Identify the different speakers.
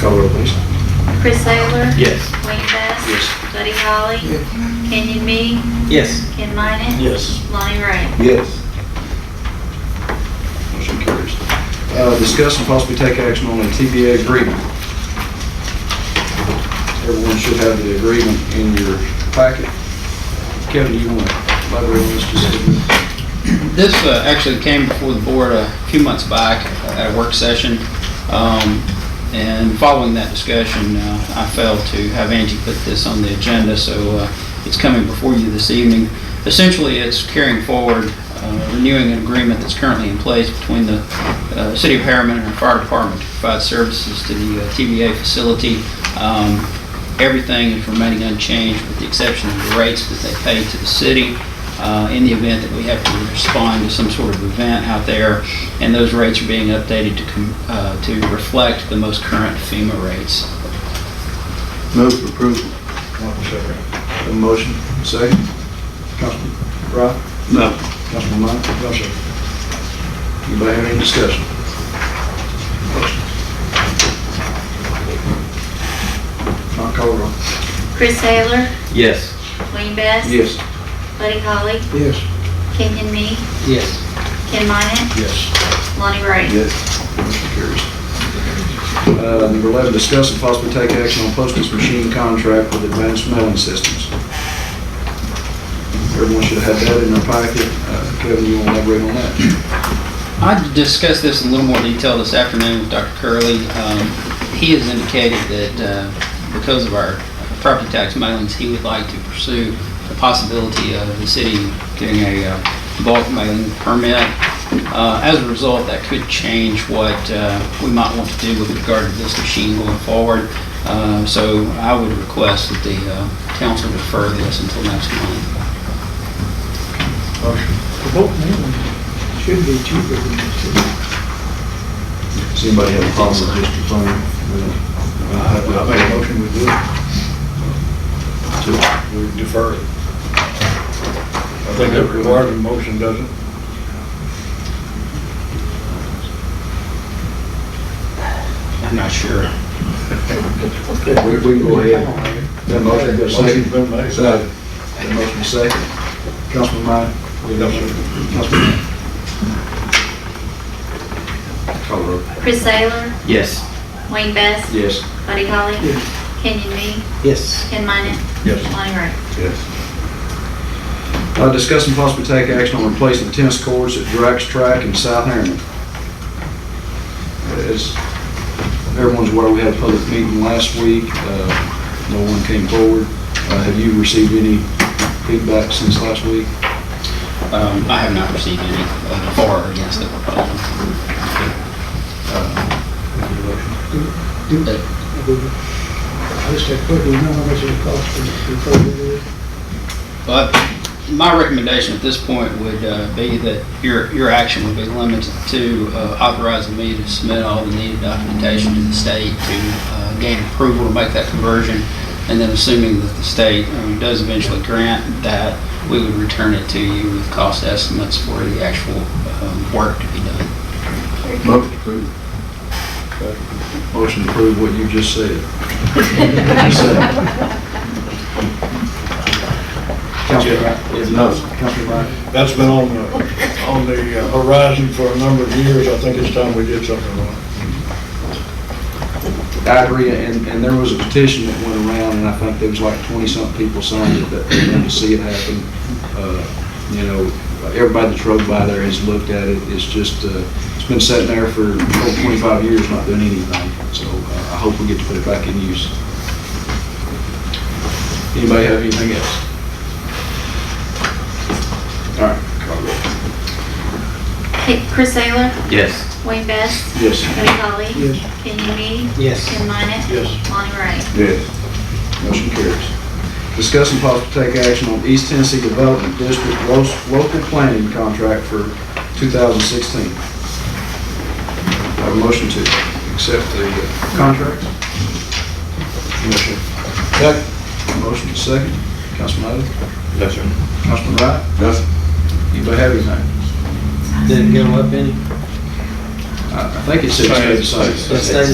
Speaker 1: Call roll, please.
Speaker 2: Chris Taylor?
Speaker 3: Yes.
Speaker 2: Wayne Best?
Speaker 3: Yes.
Speaker 2: Buddy Holly? Kenyon Me?
Speaker 3: Yes.
Speaker 2: Ken Minnet?
Speaker 3: Yes.
Speaker 2: Lonnie Ray?
Speaker 1: Yes.
Speaker 3: Motion carries.
Speaker 1: Uh, Discuss and possibly take action on a TBA agreement. Everyone should have the agreement in your packet. Kevin, you want to elaborate on this just a little bit?
Speaker 4: This uh, actually came before the board a few months back at a work session. Um, And following that discussion, uh, I failed to have Angie put this on the agenda, so uh, it's coming before you this evening. Essentially, it's carrying forward, uh, renewing an agreement that's currently in place between the uh, City of Harriman and our fire department to provide services to the uh, TBA facility. Um, Everything is remaining unchanged with the exception of the rates that they pay to the city uh, in the event that we have to respond to some sort of event out there, and those rates are being updated to, com- uh, to reflect the most current FEMA rates.
Speaker 1: Move for approval. A motion, second. Councilman Wright?
Speaker 3: No.
Speaker 1: Councilman Mott? No, sir. Anybody have any discussion? Not call roll.
Speaker 2: Chris Taylor?
Speaker 3: Yes.
Speaker 2: Wayne Best?
Speaker 1: Yes.
Speaker 2: Buddy Holly?
Speaker 1: Yes.
Speaker 2: Kenyon Me?
Speaker 3: Yes.
Speaker 2: Ken Minnet?
Speaker 1: Yes.
Speaker 2: Lonnie Ray?
Speaker 1: Yes. Motion carries. Uh, Number 11, discuss and possibly take action on postage machine contract with Advanced Mailing Systems. Everyone should have had that in their packet. Uh, Kevin, you want to elaborate on that?
Speaker 4: I discussed this in a little more detail this afternoon with Dr. Curley. Um, He has indicated that uh, because of our property tax mailings, he would like to pursue the possibility of the city getting a uh, bulk mailing permit. Uh, As a result, that could change what uh, we might want to do with regard to this machine going forward. Uh, So I would request that the uh, council defer this until next month.
Speaker 5: The boat mainly should be cheaper than the city.
Speaker 1: Does anybody have a problem with district planning? I make a motion, we do it.
Speaker 5: We defer it. I think that requires a motion, doesn't it?
Speaker 4: I'm not sure.
Speaker 1: We we can go ahead. That motion, got a
Speaker 5: Motion's
Speaker 1: second?
Speaker 5: been made.
Speaker 1: Second. That motion, second. Councilman Meyer?
Speaker 5: Yes, sir.
Speaker 1: Councilman Meyer? Call the roll.
Speaker 2: Chris Taylor?
Speaker 3: Yes.
Speaker 2: Wayne Best?
Speaker 1: Yes.
Speaker 2: Buddy Holly?
Speaker 5: Yes.
Speaker 2: Kenyon Me?
Speaker 3: Yes.
Speaker 2: Ken Minnet?
Speaker 1: Yes.
Speaker 2: Lonnie Ray?
Speaker 1: Yes. Uh, discuss and possibly take action on replacing tennis courts at Drax Track in South Harriman. As everyone's aware, we had a public meeting last week, uh, no one came forward. Uh, have you received any feedback since last week?
Speaker 4: Um, I have not received any uh, for or against the proposal.
Speaker 5: Do- I just had put, do you know how much it costs to to put it in?
Speaker 4: But my recommendation at this point would uh, be that your, your action would be limited to uh, authorizing me to submit all the needed documentation to the state to uh, gain approval to make that conversion. And then assuming that the state um, does eventually grant that, we would return it to you with cost estimates for the actual um, work to be done.
Speaker 1: Motion approved. Motion to approve what you just said. Councilman Wright? No. Councilman Wright?
Speaker 5: That's been on the, on the uh, horizon for a number of years. I think it's time we did something on it.
Speaker 1: I agree, and, and there was a petition that went around, and I think there was like twenty-something people signed it, that they wanted to see it happen. Uh, You know, everybody that's rode by there has looked at it, it's just, uh, it's been sitting there for over twenty-five years, not doing anything, so uh, I hope we get to put it back in use. Anybody have anything else? All right. call roll.
Speaker 2: Hey, Chris Taylor?
Speaker 3: Yes.
Speaker 2: Wayne Best?
Speaker 1: Yes.
Speaker 2: Buddy Holly?
Speaker 5: Yes.
Speaker 2: Kenyon Me?
Speaker 3: Yes.
Speaker 2: Ken Minnet?
Speaker 5: Yes.
Speaker 2: Lonnie Ray?
Speaker 1: Yes. Motion carries. Discuss and possibly take action on East Tennessee Development District lo- local planning contract for 2016. Do I Have a motion to accept the uh, contract? Motion. Second. Motion second. Councilman Odom?
Speaker 3: No, sir.
Speaker 1: Councilman Wright? Yes. Anybody have anything?
Speaker 6: Didn't go up any?
Speaker 1: I I think it said it stayed the same.
Speaker 6: It stayed